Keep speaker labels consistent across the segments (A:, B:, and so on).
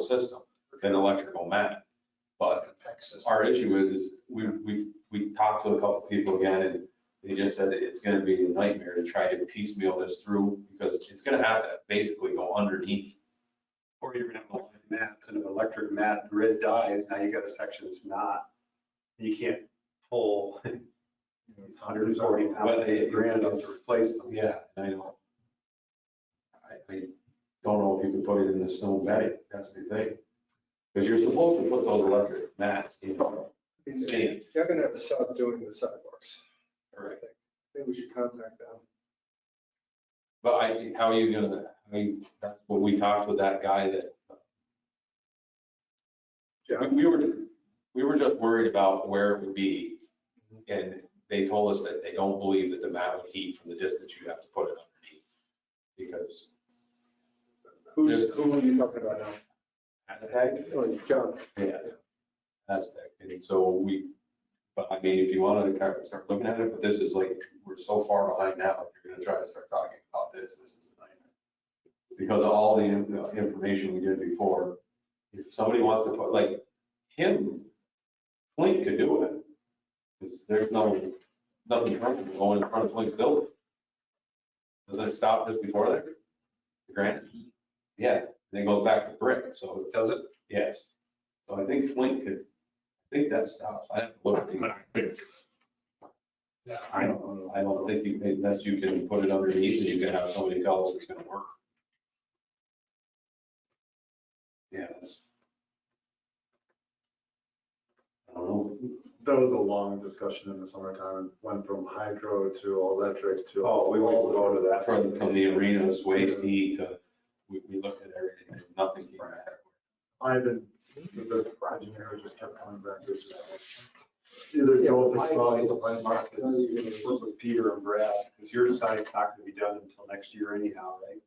A: system than electrical man. But our issue is, is we, we, we talked to a couple people again and they just said that it's gonna be a nightmare to try to piecemeal this through because it's gonna have to basically go underneath.
B: Or you're gonna have electric mats and if electric mat grid dies, now you got a section that's not, you can't pull these hundred and forty
A: But
B: pounds
A: they-
B: of grand up to replace them.
A: Yeah, I know. I, I don't know if you can put it in the snow bedding, that's the thing. Cause you're supposed to put those electric mats in.
C: They're gonna have a sub doing the sidewalks.
A: Correct.
C: Maybe we should contact them.
A: But I, how are you gonna, I mean, that's what we talked with that guy that.
C: Yeah.
A: We we were, we were just worried about where it would be. And they told us that they don't believe that the mat would heat from the distance you have to put it underneath. Because.
C: Who's, who are you talking about now?
A: Aztec?
C: Oh, John.
A: Yeah. Aztec. And so we, but I mean, if you wanted to kind of start looking at it, but this is like, we're so far behind now, if you're gonna try to start talking about this, this is a nightmare. Because all the in- the information we did before, if somebody wants to put, like, him, Flink could do it. 'Cause there's no, nothing wrong with going in front of Flink's building. Does it stop just before there? The Granite? Yeah, then it goes back to brick, so
B: Does it?
A: Yes. So I think Flint could, I think that stops. I have to look. at the- I don't, I don't think you, unless you can put it underneath and you can have somebody tell us it's gonna work. Yeah, that's. I don't know.
D: That was a long discussion in the summertime, went from hydro to electric to.
B: Oh, we went-
D: all go to that.
A: From, from the arenas, waste heat to, we, we looked at everything, and nothing came back.
D: Ivan, the engineer just kept coming back to this. Either go with the small, the plan market,
B: It was with Peter and Brad, because yours is not it's not gonna be done until next year anyhow, right?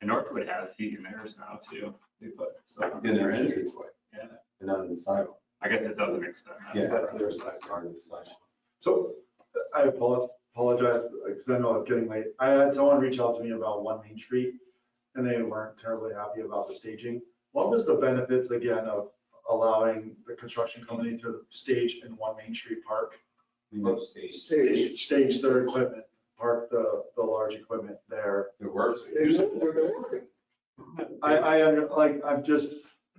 E: And Northwood has heat in theirs now too. They put, so
A: In their entranceway.
E: Yeah.
A: And on the sidewalk.
E: I guess it doesn't extend that.
A: Yeah.
B: That's their
A: side. Part of the sidewalk.
D: So I apo- apologize, because I know it's getting late. I had someone reach out to me about One Main Street, and they weren't terribly happy about the staging. What was the benefits again of allowing the construction company to stage in One Main Street Park?
A: We must see.
C: Stage.
D: Stage their equipment, park the, the large equipment there.
A: It works.
C: They're they're working.
D: I, I, under- like, I'm just,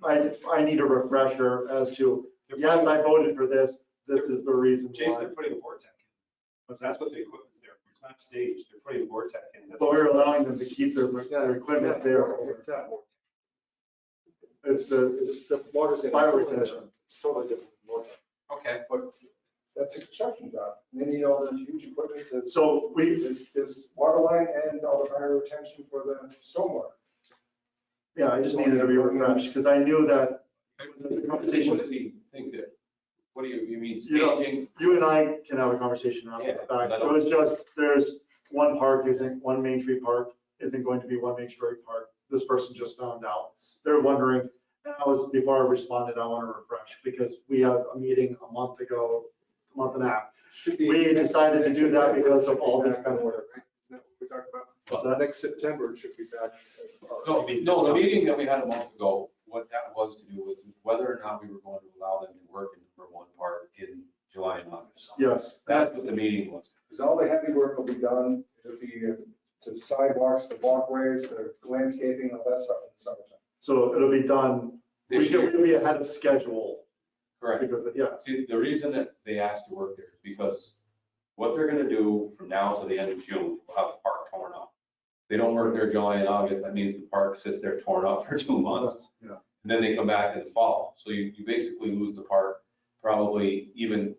D: I, I need a refresher as to, yes, I voted for this, this is the reason
B: Jason,
D: why.
B: they're putting a vortex in. But that's what the equipment's there for. It's not staged. They're putting a vortex in. That's-
D: But we're allowing them to keep their, their equipment there.
C: It's not working.
D: It's the, it's
C: It's the water's. in-
D: Fire retention.
C: It's totally different. water.
A: Okay.
C: But that's a construction job. They need all those huge equipment to
D: So we,
C: There's, there's water line and all the fire retention for the stormwater.
D: yeah, I just needed to be refreshed because I knew that The conversation-
A: What does he think that, what do you, you mean
D: You know-
A: staging?
D: you and I can have a conversation around
A: Yeah,
D: the fact.
A: I
D: It was just, there's one park isn't, one Main Street Park isn't going to be one Main Street Park. This person just found out. They're wondering, and I was, before I responded, I want to refresh because we had a meeting a month ago, a month and a half.
C: Should be-
D: We decided to do that because of all this
C: Should be back
D: kind
C: in
D: of
C: order,
D: work.
C: right? Isn't that what we talked about?
D: What's that?
C: Next September, it should be back.
A: No, no, the meeting that we had a month ago, what that was to do was whether or not we were going to allow them to work in number one part in July and August.
D: Yes,
A: That's what the meeting was.
C: Because all the heavy work will be done, it'll be uh, the sidewalks, the walkways, the landscaping, all that stuff in the summertime.
D: so it'll be done, we
A: This
D: should
A: year,
D: be ahead of schedule
A: correct.
D: because, of- yes.
A: See, the reason that they asked to work there is because what they're gonna do from now till the end of June, we'll have the park torn up. They don't work there July and August, that means the park sits there torn up for two months.
D: Yeah.
A: and then they come back in the fall. So you, you basically lose the part probably even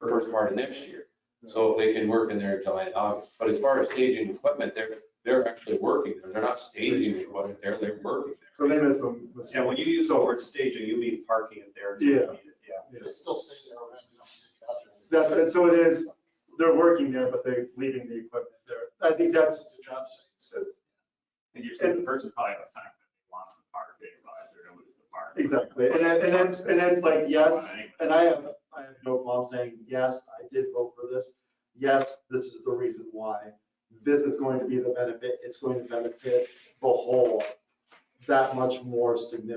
A: first part of next year. So if they can work in there in July and August, but as far as staging equipment, they're, they're actually working there. They're not staging equipment there, they're working
D: So
A: there.
D: they missed them.
B: Yeah, when you use the word staging, you mean parking it there.
D: Yeah.
B: Yeah.
F: It's still staying there, right? You don't need to capture it.
D: That's, and so it is, they're working there, but they're leaving the equipment there. I think that's,
F: It's a job site.
E: And you're saying the person probably has a sign that they want the park, they realize they're gonna lose the park.
D: exactly, and it- and it's, and it's like, yes,
E: Anyway.
D: and I have, I have no problem saying, yes, I did vote for this. Yes, this is the reason why. This is going to be the benefit, it's going to benefit the whole that much more significantly.